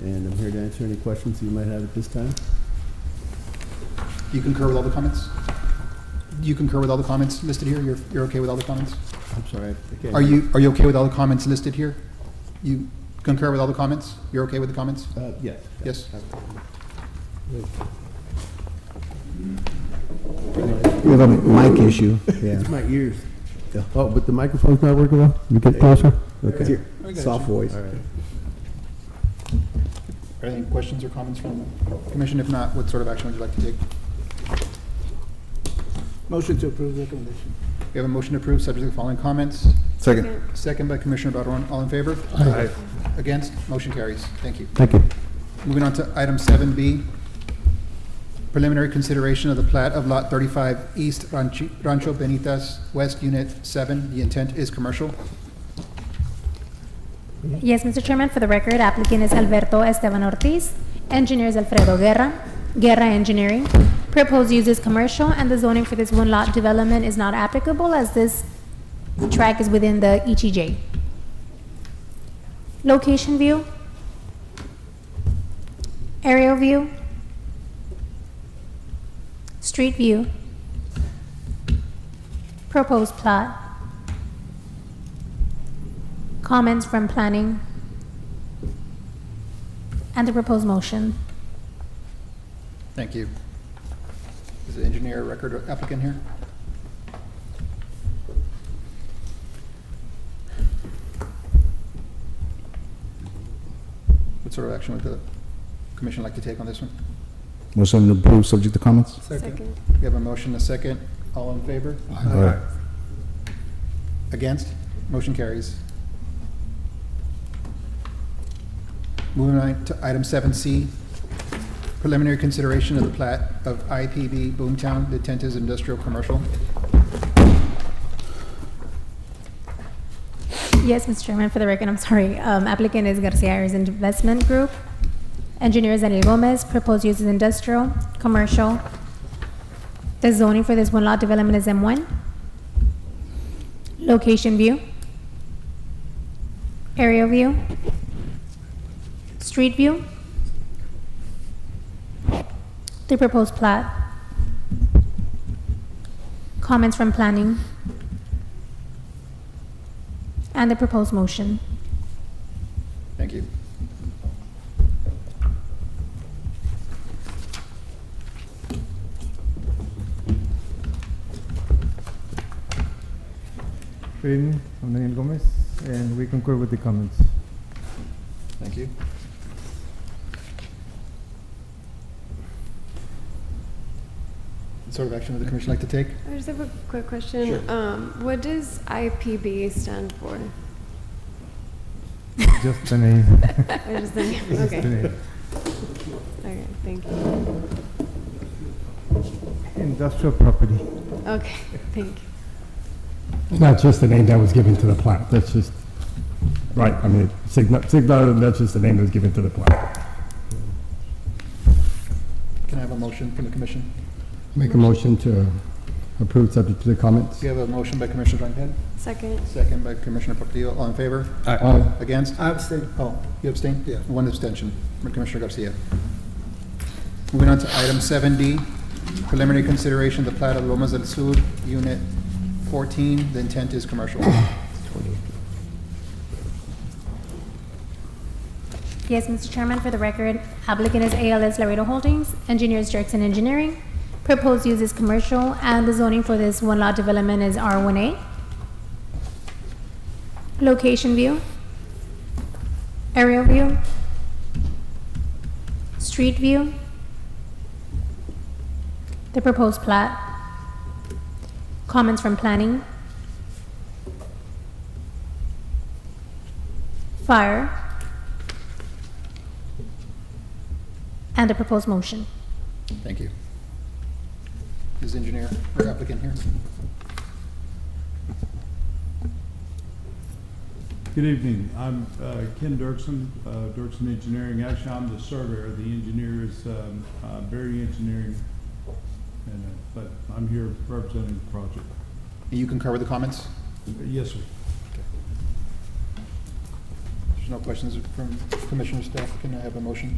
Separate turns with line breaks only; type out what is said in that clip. and I'm here to answer any questions you might have at this time.
You concur with all the comments? You concur with all the comments listed here? You're, you're okay with all the comments?
I'm sorry. I can't-
Are you, are you okay with all the comments listed here? You concur with all the comments? You're okay with the comments?
Uh, Yes.
Yes?
We have a mic issue.
It's my ears. Oh, but the microphone's not working well? You get closer? Okay.
Soft voice.
All right.
Are there any questions or comments from the commission? If not, what sort of action would you like to take?
Motion to approve recommendation.
We have a motion to approve, subject to the following comments.
Second.
Second by Commissioner Barone, all in favor? Against? Motion carries. Thank you.
Thank you.
Moving on to item seven B, preliminary consideration of the plat of lot thirty-five East Ranchi- Rancho Benitas, West Unit Seven. The intent is commercial.
Yes, Mr. Chairman, for the record, applicant is Alberto Esteban Ortiz, engineer is Alfredo Guerra, Guerra Engineering. Proposed use is commercial, and the zoning for this one lot development is not applicable as this track is within the E ETJ. Location view. Aerial view. Street view. Proposed plot. Comments from planning. And the proposed motion.
Thank you. Is the engineer record applicant here? What sort of action would the commission like to take on this one?
Motion approved, subject to comments?
Second.
We have a motion, a second. All in favor?
Aye.
Against? Motion carries. Moving on to item seven C, preliminary consideration of the plat of IPB Boomtown, the tent is industrial commercial.
Yes, Mr. Chairman, for the record, I'm sorry. Um, Applicant is Garcia Ayers Investment Group. Engineer is Daniel Gomez. Proposed use is industrial, commercial. The zoning for this one lot development is M1. Location view. Aerial view. Street view. The proposed plat. Comments from planning. And the proposed motion.
Thank you.
Good evening, I'm Daniel Gomez, and we concur with the comments.
Thank you. What Sort of action would the commission like to take?
I just have a quick question. Um, what does IPB stand for?
Just the name.
I just think,
Just the
okay,
name.
okay, thank you.
Industrial property.
Okay, thank you.
Not just the name that was given to the plat, that's just, right, I mean, Signa, Signa, that's just the name that was given to the plat.
Can I have a motion from the commission?
Make a motion to approve subject to the comments.
Do you have a motion by Commissioner Duncan?
Second,
Second by Commissioner Portillo, all in favor?
Aye.
Against?
I abstain.
Oh, you abstain?
Yeah.
One abstention, from Commissioner Garcia. Moving on to item seven D, preliminary consideration of the plat of Lomas del Sur, unit fourteen, the intent is commercial.
Yes, Mr. Chairman, for the record, applicant is ALS Laredo Holdings, engineers Dirksen Engineering. Proposed use is commercial, and the zoning for this one lot development is R1A. Location view. Aerial view. Street view. The proposed plat. Comments from planning. Fire. And the proposed motion.
Thank you. Is the engineer or applicant here?
Good evening, I'm uh, Ken Dirksen, uh, Dirksen Engineering, actually, I'm the surveyor, the engineer is um, uh, Berry Engineering, and, uh, but I'm here representing the project.
You concur with the comments?
Yes, sir.
There's no questions from commissioner staff. Can I have a motion?